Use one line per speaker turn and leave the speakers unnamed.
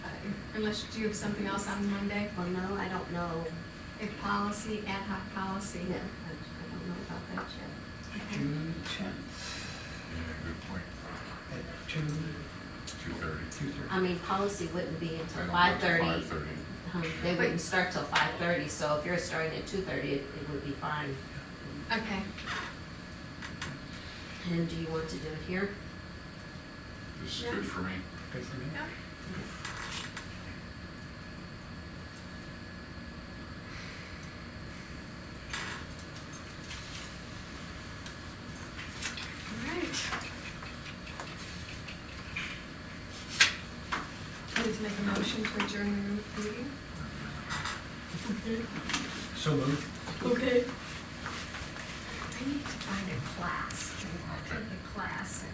Uh, Unless, do you have something else on Monday?
Well, no, I don't know.
A policy, ad hoc policy?
Yeah, I I don't know about that yet.
Okay.
June tenth
Yeah, good point,
at two,
two thirty.
two
I
thirty.
mean, policy wouldn't be until five thirty. Uh-huh. Um,
Five thirty.
They
Wait.
wouldn't start till five thirty, so if you're starting at two thirty, it it would be fine.
Okay,
And do you want to do it here?
This is good for me.
Good for me.
all right. I Need to make a motion to adjourn the meeting?
So moved.
Okay. I need to find a class,
Okay.
take a class